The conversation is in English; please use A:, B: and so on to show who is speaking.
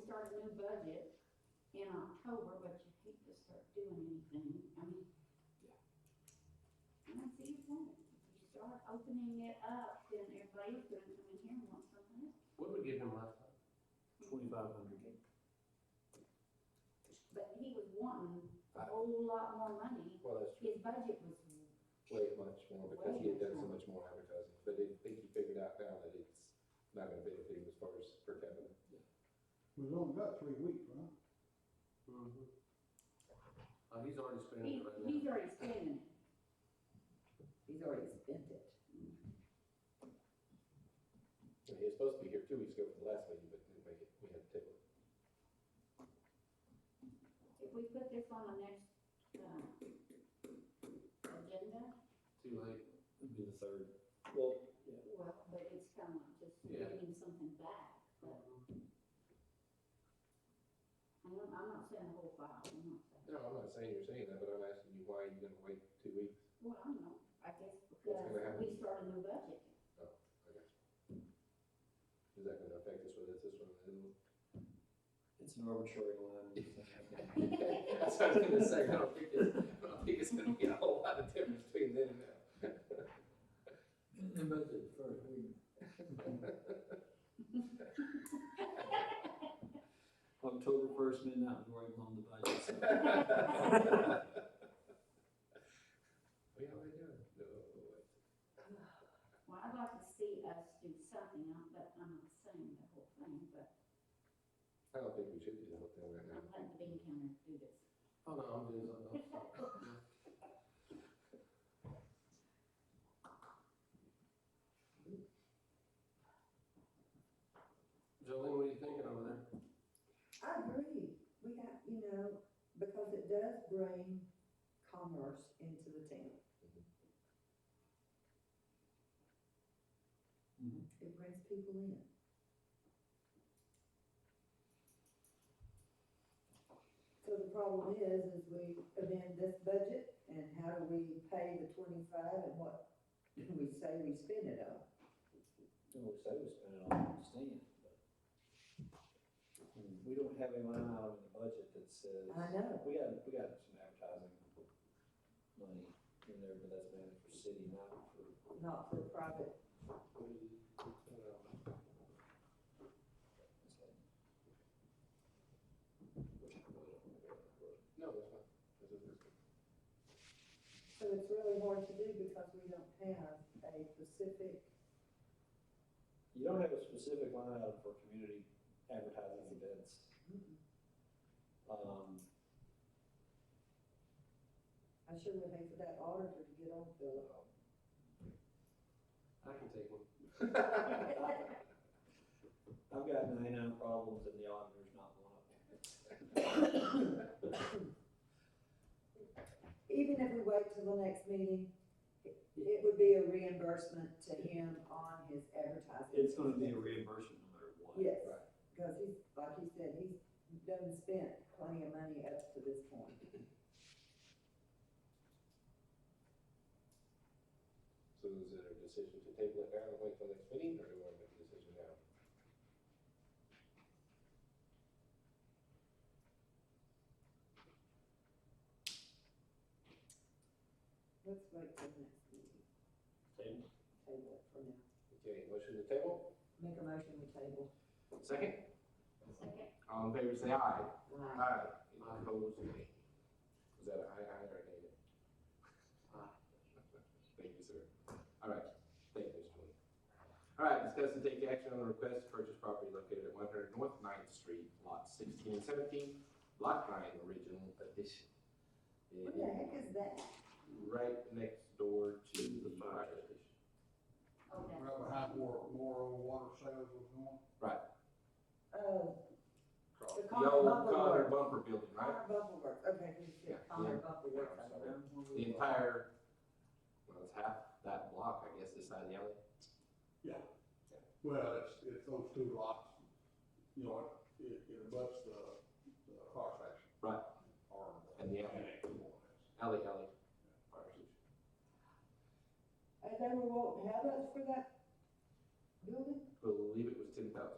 A: start a new budget in October, but you hate to start doing anything, I mean. And I see your point, if you start opening it up, then everybody's gonna come in here and want something else.
B: What did we give him last time?
C: Twenty-five hundred.
A: But he was wanting a
D: Right.
A: whole lot more money,
D: Well, that's true.
A: his budget was,
D: way much more because he had done so much more advertising. But I think he figured out now that it's not gonna benefit him as far as per capita.
E: We've only got three weeks, right?
B: Mm-hmm. Oh, he's already spending
A: he,
B: it right now.
A: he's already spending it. He's already spent it.
D: And he was supposed to be here two weeks ago for the last meeting, but didn't make it. We had to table it.
A: If we put this on the next, uh, agenda,
B: Too late.
C: It'd be the third. Well,
A: well, but it's kind of just
B: Yeah.
A: getting something back, but
B: Mm-hmm.
A: I'm, I'm not saying the whole file, I'm not saying.
D: No, I'm not saying you're saying that, but I'm asking you, why are you gonna wait two weeks?
A: Well, I don't know, I guess
D: gonna
A: because
D: happen?
A: we start a new budget.
D: I guess. Is that gonna affect this one, is this one, and the other one?
C: it's an arbitrary line.
D: That's what I was gonna say. I don't think it's, I don't think it's gonna be a whole lot of difference between then and now.
F: And that's it first week.
C: October first midnight was where I blown the budget. so.
D: We already done. No,
A: Well, I'd like to see us do something, I- but I'm not saying the whole thing, but
D: I don't think we should do the whole thing right now.
A: I'm letting the bean counter do this.
B: Oh, no, I'm doing something else. Jolene, what are you thinking over there?
G: I agree. We got, you know, because it does bring commerce into the town.
C: Mhm.
G: It brings people in. So the problem is, is we amend this budget and how do we pay the twenty-five and what do we say we spend it on?
C: No, we say we spend it on, I understand, but. We don't have a line item in the budget that says.
G: I know.
C: We got, we got some advertising money in there, but that's mainly for city, not for
G: Not for profit.
C: It's
D: No, that's fine. This is- this is-
G: So it's really hard to do because we don't have a specific
C: You don't have a specific line item for community advertising events. Um,
G: I sure would hate for that auditor to get on Philip.
B: I can take one.
C: I've got ninety-nine problems and the auditor's not one of them.
G: Even if we wait till the next meeting, it- it would be a reimbursement to him on his advertising.
C: It's gonna be a reimbursement no matter what.
G: Yes,
D: Right.
G: because he's, like he said, he's done spent plenty of money up to this point.
D: So is it a decision to table it now and wait till next meeting, or do we want to make a decision now?
G: Let's wait till the next meeting,
C: Table.
G: table it for now.
D: Okay, motion to table?
G: Make a motion to table.
D: Second.
A: Second,
D: All in favor, say aye.
G: Aye.
D: Aye. Any opposed, nay? Was that an aye, aye, or a nay?
B: Aye.
D: Thank you, sir. All right, thank you, Mr. Williams. All right, discuss and take action on the request to purchase property located at one hundred North Ninth Street, lot sixteen and seventeen, lot nine, original addition. It
G: What the heck is that?
D: Right next door to the fire station.
A: oh, that's.
E: Right behind where, where old water sales was going.
G: Oh,
D: Across The
G: Connor
D: old
G: Bumper
D: Connor
G: Works.
D: Bumper building, right?
G: Connor Bumble Works, okay,
D: Yeah,
G: he said Connor Bumble Works, I
D: sorry.
G: don't know.
D: The entire, well, it's half that block, I guess, this side of the alley.
E: Well, it's, it's those two lots, you know, it, it- it abuts the, the car section.
D: Right.
E: Or.
D: And
E: the-
D: the alley.
E: annex, more or less.
D: Alley, alley. Fire station.
G: And they were wanting how much for that building?
D: Believe it was ten thousand.